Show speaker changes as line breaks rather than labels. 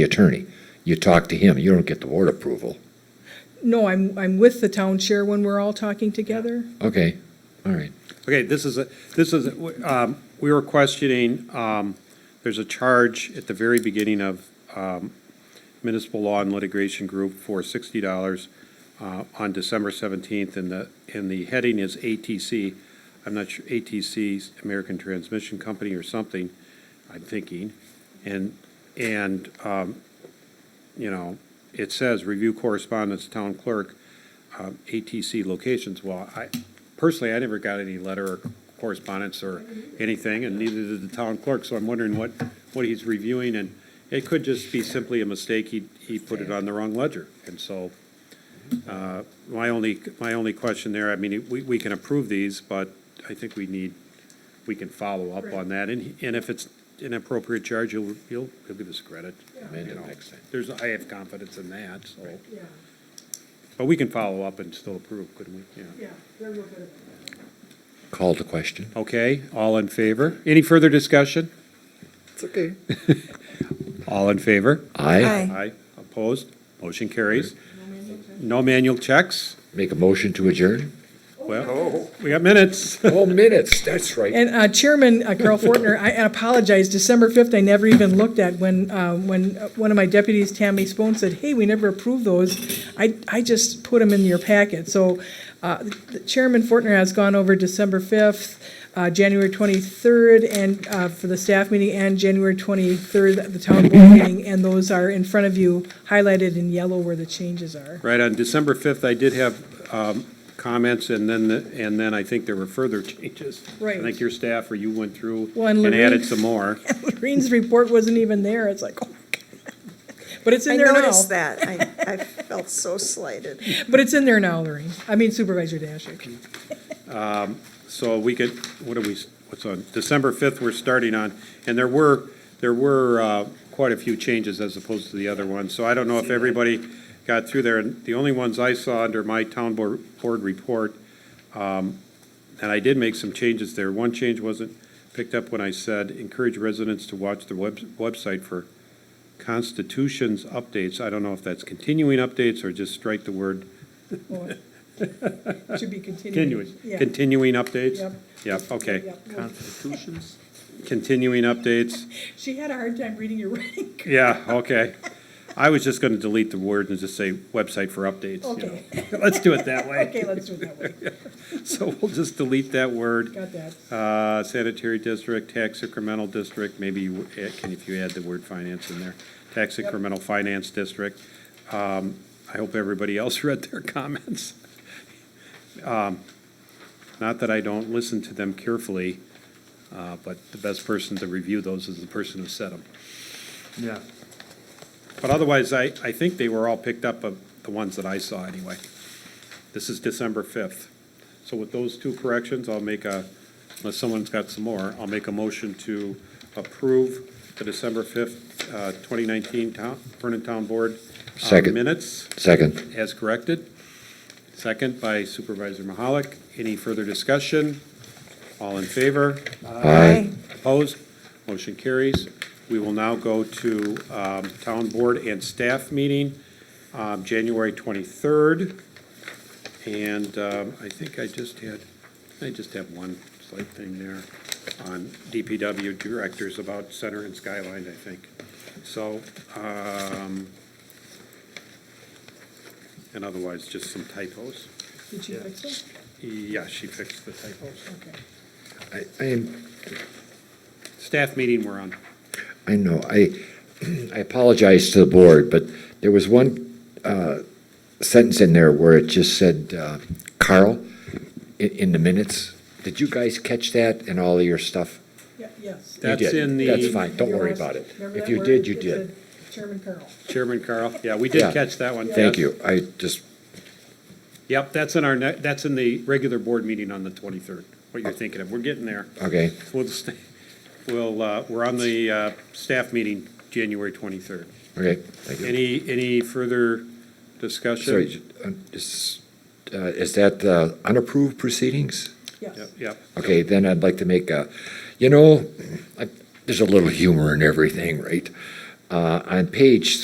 the attorney. You talk to him, you don't get the board approval.
No, I'm, I'm with the town chair when we're all talking together.
Okay, all right.
Okay, this is, a this is, a- um, we were questioning, um, there's a charge at the very beginning of um, municipal law and litigation group for sixty dollars uh, on December seventeenth, and the, and the heading is ATC. I'm not sure, ATC's American Transmission Company or something, I'm thinking. And, and, um, you know, it says review correspondence, town clerk, um, ATC locations. Well, I, personally, I never got any letter or correspondence or anything, and neither did the town clerk, so I'm wondering what, what he's reviewing, and it could just be simply a mistake, he, he put it on the wrong ledger, and so, uh, my only, my only question there, I mean, we, we can approve these, but I think we need, we can follow up on that, and, and if it's an appropriate charge, you'll, you'll, you'll give us credit.
Amend
you
it
know.
next time.
There's, I have confidence in that, so, but we can follow up and still approve, couldn't we? Yeah.
Call to question.
Okay, all in favor? Any further discussion?
It's okay.
All in favor?
I
Aye. Opposed? Motion carries. No manual checks?
make a motion to adjourn.
Oh.
Well, we got minutes.
Oh, minutes, that's right.
And uh, Chairman uh, Carl Fortner, I apologize, December 5th, I never even looked at when, uh, when uh, one of my deputies, Tammy Spohn, said, hey, we never approved those. I, I just put them in your packet. So uh, the Chairman Fortner has gone over December 5th, uh, January 23rd, and uh, for the staff meeting, and January 23rd, the town board meeting, and those are in front of you, highlighted in yellow where the changes are.
Right, on December 5th, I did have um, comments, and then, the- and then I think there were further changes. I
Right.
think your staff or you went through
Well, and
and added
Lorraine-
some more.
Green's report wasn't even there. It's like, oh my God. But it's in
I
there now.
noticed that. I, I felt so slighted.
But it's in there now, Lorraine. I mean Supervisor Dashick.
So we could, what are we, what's on, December 5th, we're starting on, and there were, there were uh, quite a few changes as opposed to the other ones. So I don't know if everybody got through there. And The only ones I saw under my town board, board report, um, and I did make some changes there. One change wasn't picked up when I said encourage residents to watch the web, website for constitutions updates. I don't know if that's continuing updates or just strike the word
Well, it Should be continuing.
continuing,
Yeah.
continuing updates?
Yep.
Yep, okay.
Yep. Well,
Constitutions?
Continuing updates,
She had a hard time reading your writing.
yeah, okay. I was just gonna delete the word and just say website for updates, you
Okay.
know. Let's do it that way.
Okay, let's do it that way.
So we'll just delete that word.
Got that.
Uh, sanitary district, tax incremental district, maybe, you add- can, if you add the word finance in there. Tax incremental finance district. Um, I hope everybody else read their comments. Um, Not that I don't listen to them carefully, uh, but the best person to review those is the person who said them.
Yeah.
But otherwise, I, I think they were all picked up of the ones that I saw anyway. This is December 5th. So with those two corrections, I'll make a, unless someone's got some more, I'll make a motion to approve the December 5th, uh, 2019 town, Vernon Town Board uh,
Second.
minutes
Second.
as corrected. Second by Supervisor Mahalik. Any further discussion? All in favor?
Aye.
Opposed? Motion carries. We will now go to um, Town Board and Staff Meeting, um, January 23rd. And um, I think I just had, I just have one slight thing there on DPW Directors about Center and Skyline, I think. So, um, and otherwise, just some typos.
Did she fix it?
Yeah, she fixed the typos.
Okay.
I, I am,
Staff meeting we're on.
I know, I, I apologize to the board, but there was one, uh, sentence in there where it just said, uh, Carl, in, in the minutes. Did you guys catch that and all of your stuff?
Yeah, Yes.
You
That's
did.
in the-
That's fine, don't
Your
worry
last-
about it.
remember
If
that
you
word?
did, you
It
did.
said Chairman Carl.
Chairman Carl, yeah, we
Yeah.
did catch that one.
Thank
yes.
you, I just,
Yep, that's in our, ne- that's in the regular board meeting on the 23rd, what you're thinking of. We're getting there.
okay,
We'll, just- we'll, uh, we're on the uh, staff meeting, January 23rd.
okay, thank you.
Any, any further
Sorry,
discussion?
j- um, is, uh, is that uh, unapproved proceedings?
Yes.
Yep, Yep,
Okay, then I'd like to make a, you know, I- there's a little humor in everything, right? Uh, On page